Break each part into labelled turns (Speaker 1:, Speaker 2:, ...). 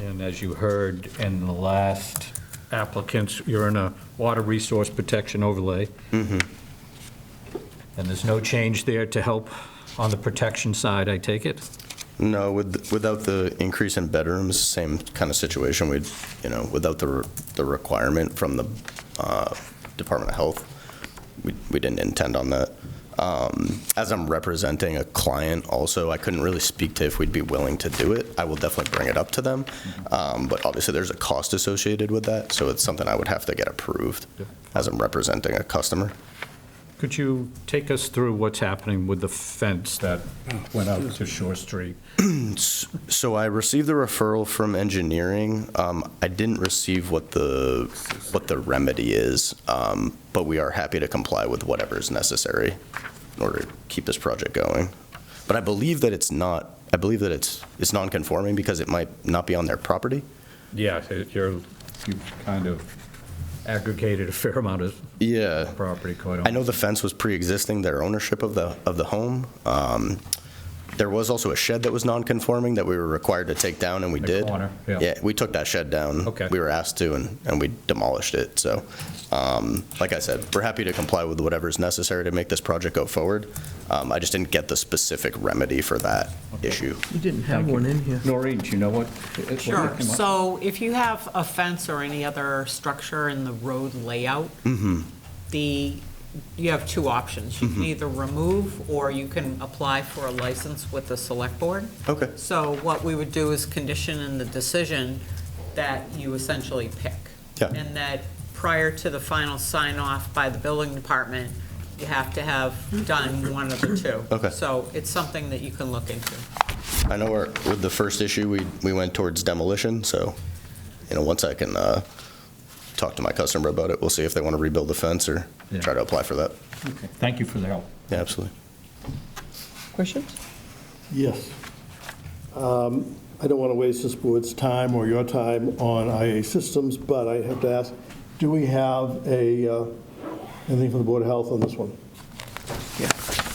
Speaker 1: And as you heard in the last applicants, you're in a water resource protection overlay.
Speaker 2: Mm-hmm.
Speaker 1: And there's no change there to help on the protection side, I take it?
Speaker 2: No, with, without the increase in bedrooms, same kind of situation, we'd, you know, without the, re- the requirement from the uh, Department of Health, we, we didn't intend on that. Um, As I'm representing a client also, I couldn't really speak to if we'd be willing to do it. I will definitely bring it up to them, Um, but obviously there's a cost associated with that, so it's something I would have to get approved
Speaker 1: Yep.
Speaker 2: as I'm representing a customer.
Speaker 1: Could you take us through what's happening with the fence that went out to Shore Street?
Speaker 2: So I received the referral from engineering. Um, I didn't receive what the, what the remedy is, um, but we are happy to comply with whatever is necessary in order to keep this project going. But I believe that it's not, I believe that it's, it's non-conforming because it might not be on their property.
Speaker 1: Yeah, it- you're, you've kind of aggregated a fair amount of
Speaker 2: Yeah.
Speaker 1: property quite
Speaker 2: Uh, I know the fence was pre-existing, their ownership of the, of the home. Um, There was also a shed that was non-conforming that we were required to take down, and we
Speaker 1: The
Speaker 2: did.
Speaker 1: corner, yeah.
Speaker 2: we took that shed down.
Speaker 1: Okay.
Speaker 2: We were asked to, and, and we demolished it, so, um, like I said, we're happy to comply with whatever is necessary to make this project go forward. Um, I just didn't get the specific remedy for that issue.
Speaker 3: You didn't have
Speaker 1: Thank you.
Speaker 3: one in here.
Speaker 1: Noreen, do you know what? what
Speaker 4: Sure,
Speaker 1: came up?
Speaker 4: so if you have a fence or any other structure in the road layout,
Speaker 2: Mm-hmm.
Speaker 4: the, you have two options. You can either remove, or you can apply for a license with the select board.
Speaker 2: Okay.
Speaker 4: So what we would do is condition in the decision that you essentially pick.
Speaker 2: Yeah.
Speaker 4: And that prior to the final sign-off by the building department, you have to have done one of the two.
Speaker 2: Okay.
Speaker 4: So it's something that you can look into.
Speaker 2: I know our, with the first issue, we, we went towards demolition, so, you know, once I can, uh, talk to my customer about it, we'll see if they want to rebuild the fence or
Speaker 1: Yeah.
Speaker 2: try to apply for that.
Speaker 1: Okay, Thank you for the help.
Speaker 2: Yeah, absolutely.
Speaker 3: Questions?
Speaker 5: Yes. Um, I don't want to waste this board's time or your time on IA systems, but I have to ask, do we have a, uh, anything from the Board of Health on this one?
Speaker 3: Yeah,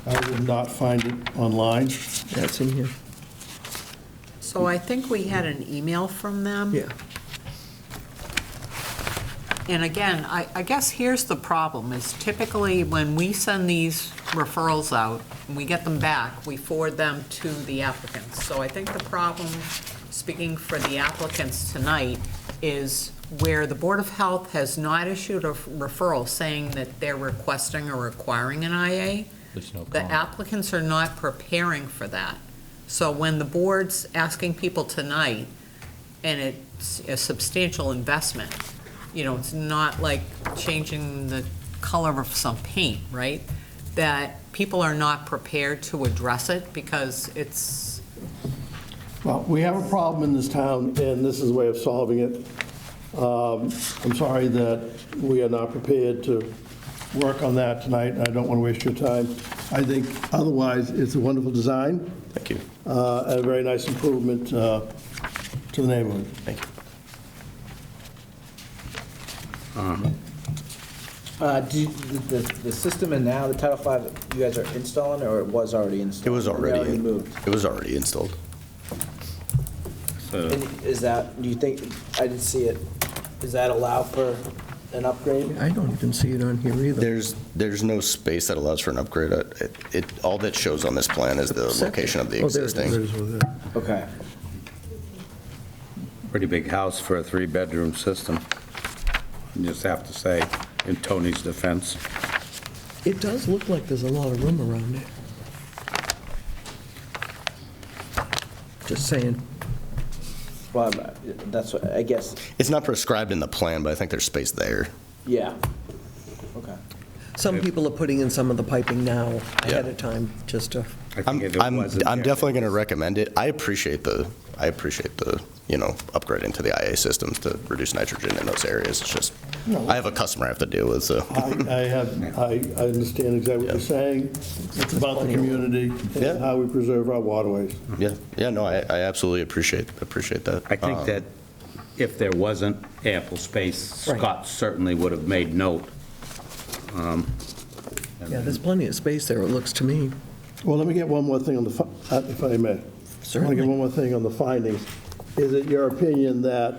Speaker 5: I did not find it online.
Speaker 3: that's in here.
Speaker 4: So I think we had an email from them.
Speaker 3: Yeah.
Speaker 4: And again, I, I guess here's the problem, is typically when we send these referrals out, and we get them back, we forward them to the applicants. So I think the problem, speaking for the applicants tonight, is where the Board of Health has not issued a referral saying that they're requesting or requiring an IA,
Speaker 1: There's no
Speaker 4: the
Speaker 1: comment.
Speaker 4: applicants are not preparing for that. So when the board's asking people tonight, and it's a substantial investment, you know, it's not like changing the color of some paint, right? That people are not prepared to address it because it's,
Speaker 5: Well, we have a problem in this town, and this is a way of solving it. Um, I'm sorry that we are not prepared to work on that tonight, and I don't want to waste your time. I think otherwise, it's a wonderful design.
Speaker 2: Thank you.
Speaker 5: uh, a very nice improvement uh, to the neighborhood.
Speaker 2: Thank you.
Speaker 6: Uh, do, you- the, the- the system and now the Title V, you guys are installing, or it was already installed?
Speaker 2: It was
Speaker 6: They
Speaker 2: already,
Speaker 6: already moved.
Speaker 2: it was already installed.
Speaker 6: And is that, do you think, I didn't see it, does that allow for an upgrade?
Speaker 3: I don't even see it on here either.
Speaker 2: There's, there's no space that allows for an upgrade. Uh, It, it- all that shows on this plan is the location of the
Speaker 3: Oh, there it is.
Speaker 2: existing.
Speaker 6: Okay.
Speaker 7: pretty big house for a three-bedroom system. You Just have to say, in Tony's defense.
Speaker 3: It does look like there's a lot of room around it. Just saying.
Speaker 6: Well, I'm- that's what, I guess,
Speaker 2: It's not prescribed in the plan, but I think there's space there.
Speaker 6: yeah. Okay.
Speaker 3: Some people are putting in some of the piping now ahead
Speaker 2: Yeah.
Speaker 3: of time, just to,
Speaker 7: I think
Speaker 2: I'm,
Speaker 7: if it
Speaker 2: I'm,
Speaker 7: wasn't
Speaker 2: I'm
Speaker 7: there-
Speaker 2: definitely going to recommend it. I appreciate the, I appreciate the, you know, upgrading to the IA systems to reduce nitrogen in those areas. It's just, I have a customer I have to deal with, so.
Speaker 5: I I have, I I understand exactly what you're saying. It's about the community
Speaker 2: Yeah.
Speaker 5: and how we preserve our waterways.
Speaker 2: Yeah, yeah, no, I, I absolutely appreciate, appreciate that.
Speaker 7: I think
Speaker 2: Um,
Speaker 7: that if there wasn't ample space,
Speaker 3: Right.
Speaker 7: Scott certainly would have made note. Um,
Speaker 3: yeah,
Speaker 7: and then-
Speaker 2: Mm-hmm.
Speaker 3: there's plenty of space there, it looks to me,
Speaker 5: Well, let me get one more thing on the, fi- uh, if I may. I want to
Speaker 3: certainly.
Speaker 5: get one more thing on the findings. Is it your opinion that